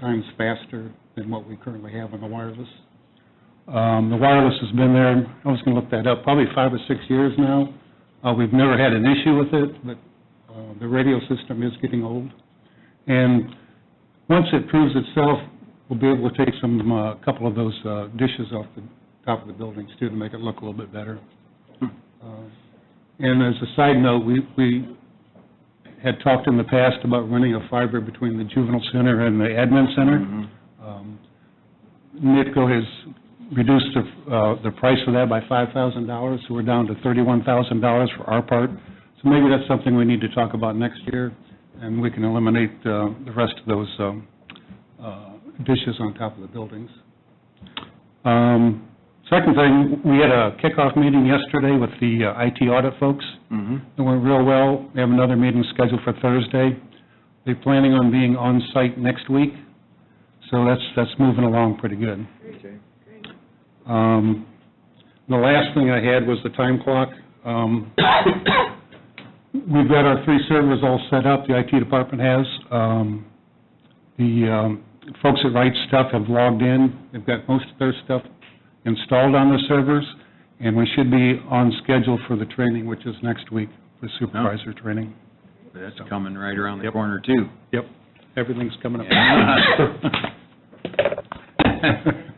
times faster than what we currently have on the wireless. Um, The wireless has been there, I was going to look that up, probably five or six years now. Uh, We've never had an issue with it, but uh, the radio system is getting old. And once it proves itself, we'll be able to take some, a couple of those uh, dishes off the top of the buildings too, to make it look a little bit better. Uh, And as a side note, we, we had talked in the past about running a fiber between the juvenile center and the admin center. Um, NITCO has reduced the, uh, the price of that by five thousand dollars, so we're down to thirty-one thousand dollars for our part. So maybe that's something we need to talk about next year, and we can eliminate, uh, the rest of those, um, uh, dishes on top of the buildings. Um, second thing, we had a kickoff meeting yesterday with the uh, IT audit folks. It went real well. They have another meeting scheduled for Thursday. They're planning on being on-site next week, so that's, that's moving along pretty good. Um, The last thing I had was the time clock. Um, We've got our three servers all set up, the IT department has. Um, The um, folks that write stuff have logged in, they've got most of their stuff installed on their servers, and we should be on schedule for the training, which is next week, the supervisor training. That's coming right around the corner, too. Yep, everything's coming up.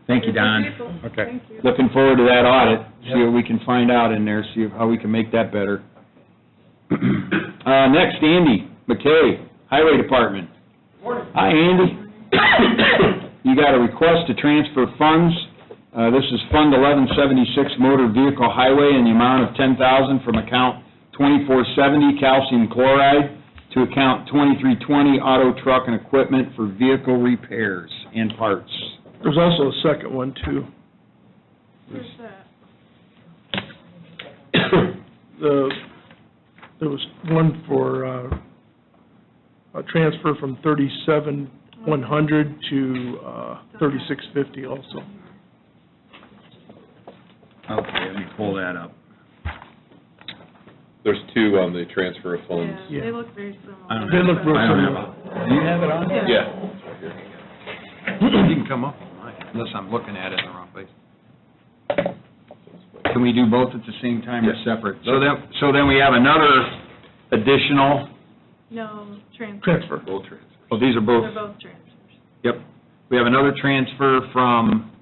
Thank you, Don. Okay. Looking forward to that audit, see what we can find out in there, see how we can make that better. Uh, next, Andy McKay, Highway Department. Hi, Andy. You got a request to transfer funds. Uh, this is Fund eleven seventy-six Motor Vehicle Highway in the amount of ten thousand from account twenty-four seventy calcium chloride to account twenty-three twenty auto truck and equipment for vehicle repairs and parts. There's also a second one, too. The, there was one for, uh, a transfer from thirty-seven one hundred to, uh, thirty-six fifty also. Okay, let me pull that up. There's two on the transfer of funds. Yeah. Yeah, they look very similar. I don't They look real I don't have similar. it. Do you have it on? Yeah. You can come up with mine, unless I'm looking at it in the wrong place. Can we do both at the same time or Yes. separate? So then, so then we have another additional, No, transfers. Transfer. Both transfers. oh, these are both, They're both transfers. yep. We have another transfer from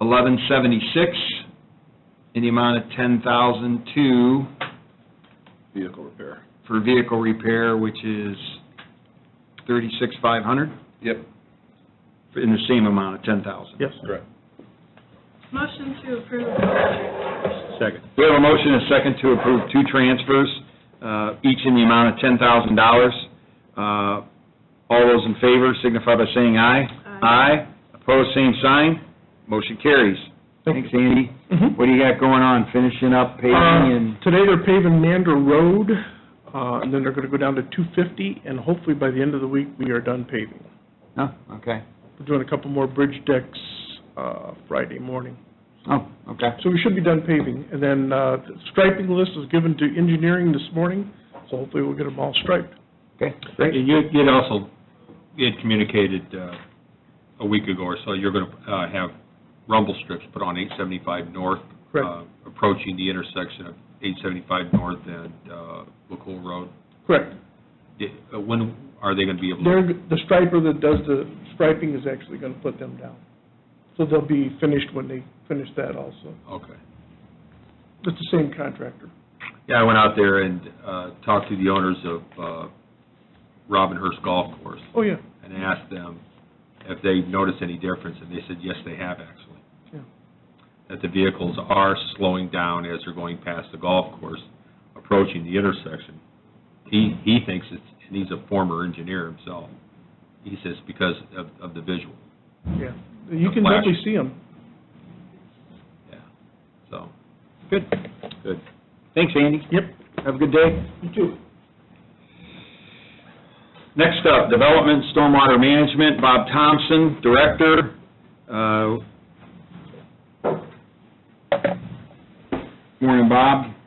eleven seventy-six in the amount of ten thousand to, Vehicle repair. for vehicle repair, which is thirty-six five hundred, Yep, in the same amount of ten thousand. Yes. correct. Motion to approve both transfers. Second. We have a motion and a second to approve two transfers, uh, each in the amount of $10,000. Uh, All those in favor signify by saying aye. Aye. Opposed, same sign. Motion carries. Thanks, Andy. Mhm. What do you got going on? Finishing up paving and, Uh, Today, they're paving Mander Road, uh, and then they're gonna go down to two fifty, and hopefully by the end of the week, we are done paving. no? Okay. We're doing a couple more bridge decks, uh, Friday morning. Oh, okay. So we should be done paving, and then uh, the striping list was given to engineering this morning, so hopefully we'll get them all striped. Okay, You, great. you had also, you had communicated uh, a week ago or so, you're going to have rumble strips put on 875 North. Correct. uh, Approaching the intersection of 875 North and uh, LaCool Road. Correct. Di- uh, When are they going to be able They're, to? the striper that does the striping is actually going to put them down. So they'll be finished when they finish that also. Okay. It's the same contractor. Yeah, I went out there and uh, talked to the owners of uh, Robin Hurst Golf Course Oh, yeah. and asked them if they noticed any difference, and they said, yes, they have actually. Yeah. That the vehicles are slowing down as they're going past the golf course, approaching the intersection. He, he thinks it's, and he's a former engineer himself, he says because of, of the visual, Yeah. You The can flash. definitely see them. yeah, so. Good. Good. Thanks, Andy. Yep. Have a good day. You too. Next up, Development Stormwater Management, Bob Thompson, Director. Uh, Morning, Bob.